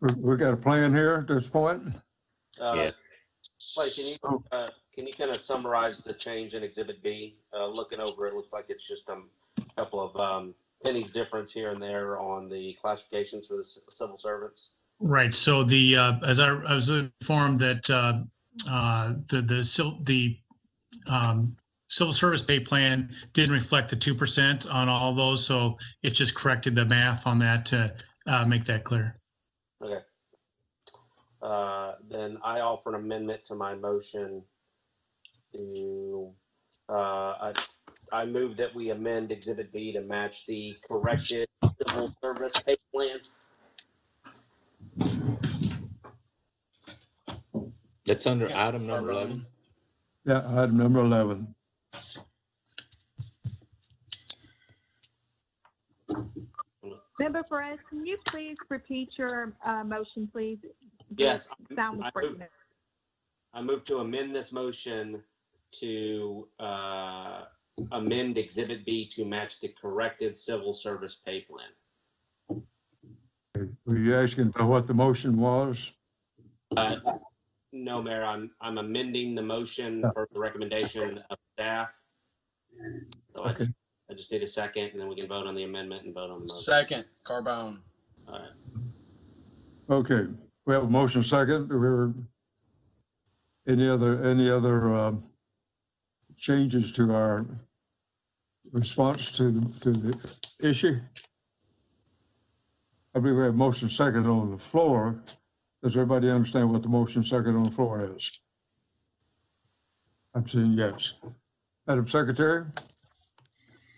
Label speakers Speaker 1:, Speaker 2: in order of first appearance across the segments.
Speaker 1: We, we got a plan here at this point?
Speaker 2: Uh,
Speaker 3: Yeah.
Speaker 2: Clay, can you, uh, can you kind of summarize the change in Exhibit B? Uh, Looking over, it looks like it's just um, a couple of um, pennies difference here and there on the classifications for the c- civil servants.
Speaker 4: Right, so the, uh, as I, I was informed that, uh, uh, the, the, sil- the, um, civil service pay plan didn't reflect the two percent on all those, so it just corrected the math on that to, uh, make that clear.
Speaker 2: Uh, Then I offer an amendment to my motion to, uh, I I move that we amend Exhibit B to match the corrected civil service pay plan.
Speaker 3: That's under
Speaker 5: Yeah.
Speaker 3: item number 11.
Speaker 1: Yeah, item number 11.
Speaker 6: Member Perez, can you please repeat your uh, motion, please?
Speaker 2: Yes,
Speaker 6: The Sound
Speaker 2: I
Speaker 6: was
Speaker 2: move-
Speaker 6: breaking. up.
Speaker 2: I move to amend this motion to uh, amend Exhibit B to match the corrected civil service pay plan.
Speaker 1: Were you asking for what the motion was?
Speaker 2: Uh, No, Mayor, I'm, I'm amending the motion for the recommendation of staff. So I
Speaker 1: Okay.
Speaker 2: I just need a second, and then we can vote on the amendment and vote on the motion.
Speaker 5: Second, Carbone.
Speaker 2: All right.
Speaker 1: Okay, we have a motion second. Do we were, any other, any other um, changes to our response to, the- to the issue? I believe we have motion second on the floor. Does everybody understand what the motion second on the floor is? I'm saying yes. Madam Secretary?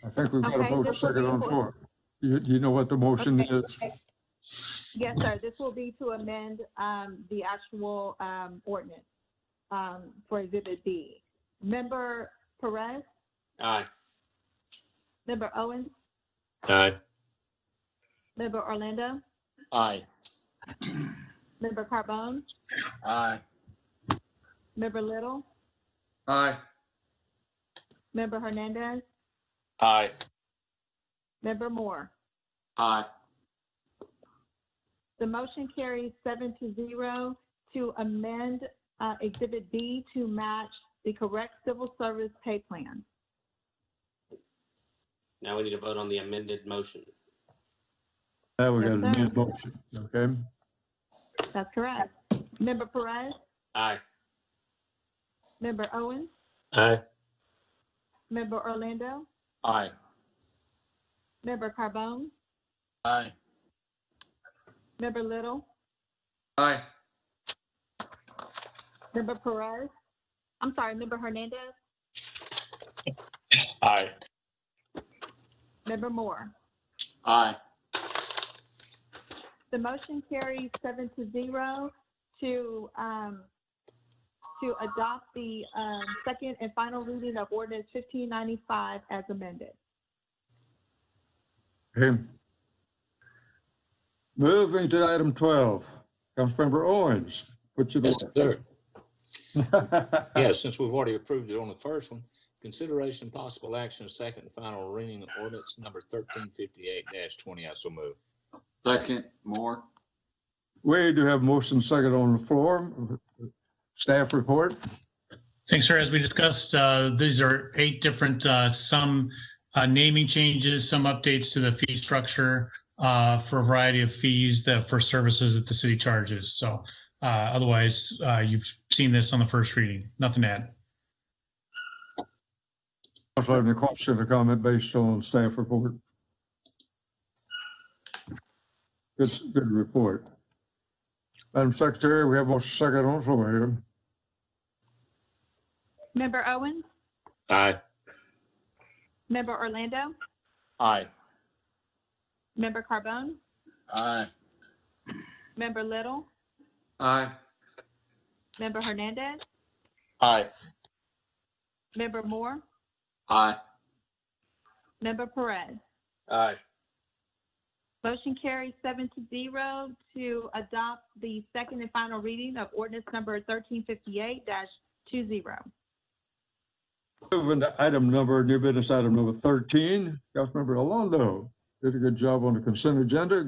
Speaker 1: I think we've got a
Speaker 6: Okay,
Speaker 1: motion
Speaker 6: this will
Speaker 1: second
Speaker 6: be
Speaker 1: on the
Speaker 6: for-
Speaker 1: floor. You, you know what the motion
Speaker 6: Okay.
Speaker 1: is?
Speaker 6: Yes, sir, this will be to amend um, the actual um, ordinance um, for Exhibit B. Member Perez,
Speaker 2: Aye.
Speaker 6: Member Owens,
Speaker 3: Aye.
Speaker 6: Member Orlando,
Speaker 5: Aye.
Speaker 6: Member Carbone,
Speaker 5: Aye.
Speaker 6: Member Little,
Speaker 5: Aye.
Speaker 6: Member Hernandez,
Speaker 5: Aye.
Speaker 6: Member Moore.
Speaker 5: Aye.
Speaker 6: The motion carries seven to zero to amend uh, Exhibit B to match the correct civil service pay plan.
Speaker 2: Now we need to vote on the amended motion.
Speaker 1: Now we got a
Speaker 6: Yes,
Speaker 1: new
Speaker 6: sir.
Speaker 1: motion, okay?
Speaker 6: That's correct. Member Perez,
Speaker 2: Aye.
Speaker 6: Member Owens,
Speaker 2: Aye.
Speaker 6: Member Orlando,
Speaker 5: Aye.
Speaker 6: Member Carbone,
Speaker 5: Aye.
Speaker 6: Member Little,
Speaker 5: Aye.
Speaker 6: Member Perez, I'm sorry, Member Hernandez,
Speaker 5: Aye.
Speaker 6: Member Moore.
Speaker 5: Aye.
Speaker 6: The motion carries seven to zero to, um, to adopt the, um, second and final reading of ordinance fifteen ninety-five as amended.
Speaker 1: Okay. Moving to item 12, Councilmember Owens, what you
Speaker 3: Yes,
Speaker 1: doing?
Speaker 3: sir. Yeah, since we've already approved it on the first one, consideration possible action, second and final reading of ordinance number 1358-20. I so move.
Speaker 5: Second, Moore.
Speaker 1: We do have motion second on the floor. Staff report,
Speaker 4: Thanks, sir. As we discussed, uh, these are eight different, uh, some uh, naming changes, some updates to the fee structure uh, for a variety of fees that for services that the city charges. So uh, otherwise, uh, you've seen this on the first reading. Nothing to add.
Speaker 1: also have any question or comment based on staff report. Good, good report. Madam Secretary, we have motion second on the floor here.
Speaker 6: Member Owens,
Speaker 3: Aye.
Speaker 6: Member Orlando,
Speaker 5: Aye.
Speaker 6: Member Carbone,
Speaker 5: Aye.
Speaker 6: Member Little,
Speaker 5: Aye.
Speaker 6: Member Hernandez,
Speaker 5: Aye.
Speaker 6: Member Moore,
Speaker 5: Aye.
Speaker 6: Member Perez.
Speaker 2: Aye.
Speaker 6: Motion carries seven to zero to adopt the second and final reading of ordinance number thirteen fifty-eight two zero.
Speaker 1: Moving to item number, new business item number 13, Councilmember Alondo did a good job on the consent agenda.